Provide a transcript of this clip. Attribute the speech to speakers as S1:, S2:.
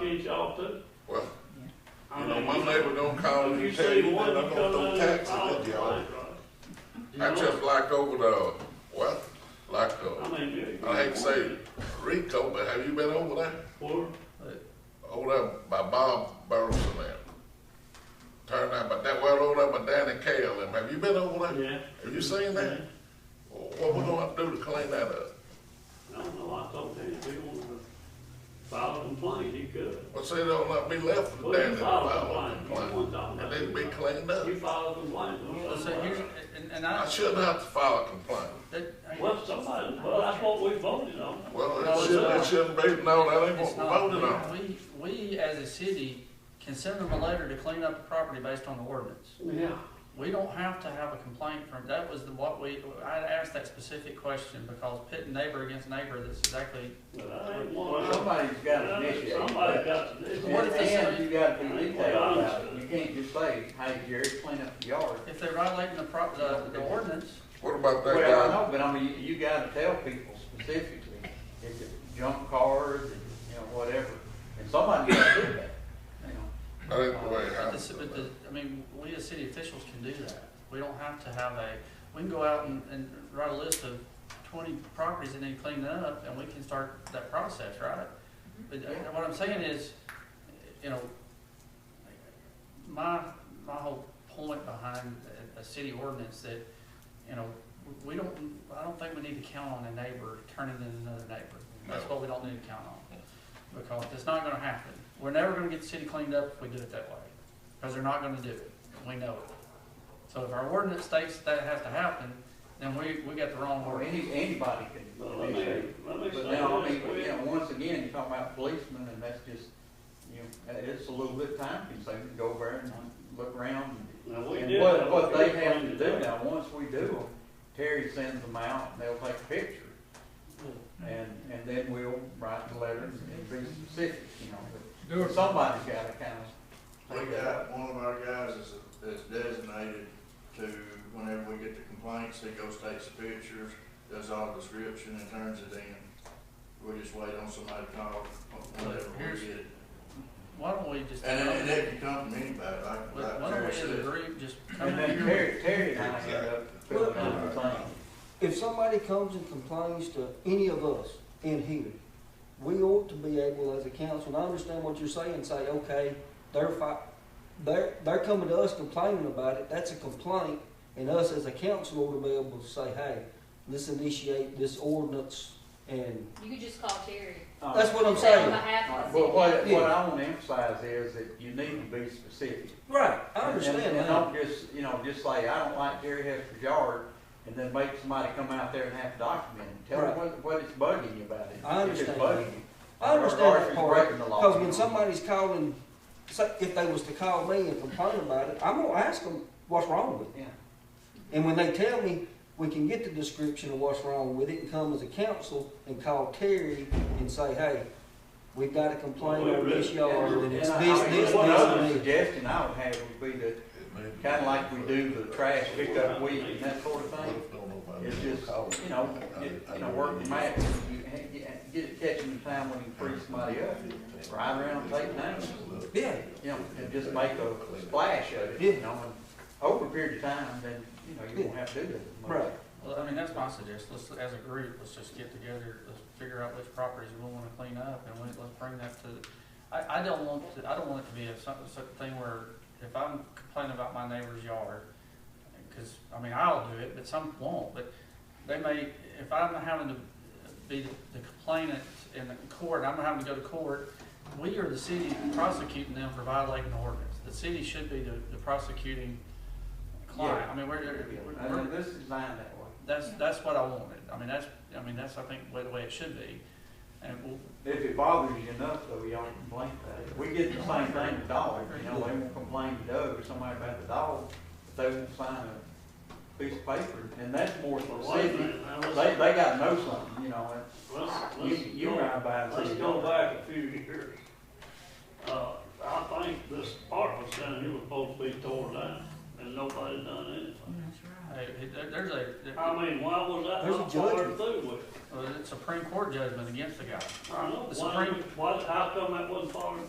S1: feed y'all too.
S2: Well,
S1: I
S2: you know, my
S1: mean,
S2: neighbor don't call
S1: If
S2: me
S1: you
S2: and tell
S1: see
S2: me that
S1: one,
S2: I'm
S1: you
S2: gonna
S1: come down
S2: throw
S1: there and
S2: taxes
S1: call
S2: at
S1: it,
S2: y'all.
S1: right?
S2: I just like over the, well, like, uh,
S1: I mean.
S2: I hate to say Rico, but have you been over there?
S1: Or,
S2: Over there by Bob Burleson there. Turn out, but that, well, over there by Danny Kale, and have you been over there?
S1: yeah,
S2: Have you seen that? Well, What we gonna have to do to clean that up?
S1: I don't know, I told him if he wanted to file a complaint, he could.
S2: Well, see, there'll not be left for
S1: Well,
S2: Danny
S1: you
S2: to
S1: filed a
S2: file a
S1: complaint, you
S2: complaint.
S1: won down
S2: It
S1: there.
S2: need to be cleaned up.
S1: You filed a complaint.
S3: Well, so you, and, and
S2: I
S3: I,
S2: shouldn't have to file a complaint.
S3: that, I-
S1: Well, somebody, well, that's what we voted on.
S2: Well,
S3: No,
S2: it
S3: it's
S2: shouldn't,
S3: not.
S2: it shouldn't be, no, that ain't what
S3: it's
S2: we
S3: not,
S2: voted on.
S3: we, we as a city can send them a letter to clean up the property based on the ordinance.
S1: Yeah.
S3: We don't have to have a complaint from, that was the, what we, I asked that specific question because pitting neighbor against neighbor, that's exactly,
S1: But I ain't
S4: Well,
S1: one.
S4: somebody's got to initiate.
S1: Somebody got to
S3: What if
S4: And
S1: do
S3: they say-
S4: and you got to be detailed about it. You can't just say, hey, Jerry, clean up the yard.
S3: if they're violating the pro, the, the ordinance,
S2: What about that
S4: Well, I
S2: guy?
S4: know, but I mean, you- you got to tell people specifically, if it's junk cars, and, you know, whatever. And somebody's got to do that, you know.
S2: That ain't the way
S3: but the, ci- but
S2: I.
S3: the, I mean, we as city officials can do that. We don't have to have a, we can go out and, and write a list of twenty properties that need cleaning up and we can start that process, right? But uh, what I'm saying is, you know, my, my whole point behind a, a city ordinance that, you know, we don't, I don't think we need to count on a neighbor turning in another neighbor. That's
S2: No.
S3: what we don't need to count on. Because it's not gonna happen. We're never gonna get the city cleaned up if we do it that way. Because they're not gonna do it. We know it. So if our ordinance states that has to happen, then we, we got the wrong
S4: Or
S3: ordinance.
S4: any, anybody
S1: Well,
S4: can
S1: let me,
S4: initiate.
S1: let me say
S4: But now, I
S1: this,
S4: mean,
S1: we-
S4: you know, once again, you're talking about policemen, and that's just, you know, that- it's a little bit time consuming, to go over there and look around.
S1: now, we
S4: And
S1: did
S4: what,
S1: have a
S4: what they
S1: good
S4: have
S1: plan
S4: to do
S1: today.
S4: now, once we do them, Terry sends them out, and they'll take a picture, and, and then we'll write the letter and be specific, you know, but somebody's gotta kind of.
S5: We got, one of our guys is, is designated to, whenever we get the complaints, he goes, takes the pictures, does all the description and turns it in. We just wait on somebody to call, whenever we get it.
S3: Why don't we just?
S5: And, and it can come from anybody, like,
S3: Why
S5: like
S3: why don't we
S5: Terry
S3: as
S5: said.
S3: a group just come
S4: And
S3: in
S4: then
S3: here?
S4: Terry, Terry and I end up filling out the thing.
S6: If somebody comes and complains to any of us in here, we ought to be able as a council, and I understand what you're saying, say, okay, they're fi- they're, they're coming to us complaining about it, that's a complaint, and us as a council ought to be able to say, hey, let's initiate this ordinance, and,
S7: You could just call Terry.
S4: Uh,
S6: that's what I'm
S7: Say on
S6: saying.
S7: behalf of the
S4: But
S7: city.
S4: what, what I wanna emphasize is that you need to be specific.
S6: Right, I
S4: And-
S6: understand
S4: And
S6: that.
S4: don't just, you know, just say, I don't like Jerry Hester's yard, and then make somebody come out there and have to document it. Tell them
S6: Right.
S4: what, what it's bugging you about it.
S6: I
S4: if it's
S6: understand.
S4: bugging you.
S6: I
S4: Or-
S6: understand
S4: or if
S6: that
S4: it's
S6: part,
S4: breaking the law.
S6: because when somebody's calling, say, if they was to call me and complain about it, I'm gonna ask them what's wrong with it.
S4: Yeah,
S6: And when they tell me, we can get the description of what's wrong with it and come as a council and call Terry and say, hey, we've got a complaint on this yard and it's
S4: And I-
S6: this,
S4: I mean,
S6: this, this,
S4: One other
S6: and this.
S4: suggestion I would have would be to, kinda like we do the trash pickup week and that sort of thing, It's just, you know, get, you know, work the match, you ha- get, get it catching the time when you free somebody up, ride around, and take names,
S6: Yeah,
S4: you know, and just make a splash of it, you know, and over a period of time, then, you know, you won't have to do that. as much.
S6: right.
S3: Well, I mean, that's my suggestion, let's, as a group, let's just get together, let's figure out which properties we wanna clean up, and we- let's bring that to, I, I don't want to, I don't want it to be a some, some thing where, if I'm complaining about my neighbor's yard, cause, I mean, I'll do it, but some won't, but they may, if I'm having to be the complainant in the court, I'm having to go to court, we are the city prosecuting them for violating the ordinance, the city should be the, the prosecuting client, I mean, we're, we're.
S4: And then this is designed that way.
S3: That's, that's what I wanted. I mean, that's, I mean, that's, I think, the way- the way it should be. And we'll,
S4: If it bothers you enough, though, you don't complain about it. We get the same thing with dogs, you know, they won't complain to Doug or somebody about the dog, but they won't sign a piece of paper, and that's more
S1: Well, wait a
S4: specific.
S1: minute, now,
S4: They,
S1: let's-
S4: they gotta know something, you know, and
S1: let's-
S4: you,
S1: let's
S4: you
S1: go-
S4: ride by and
S1: Let's
S4: see.
S1: go back a few years. Uh, I think this park was down here was supposed to be torn down, and nobody done anything.
S3: hey, there- there's a,
S1: I
S3: there- uh,
S1: mean, why was that
S6: There's a
S1: not followed
S6: judgment.
S1: through with?
S3: well, it's a Supreme Court judgment against the guy.
S1: I don't know,
S3: The
S1: why,
S3: Supreme-
S1: why, how come that wasn't followed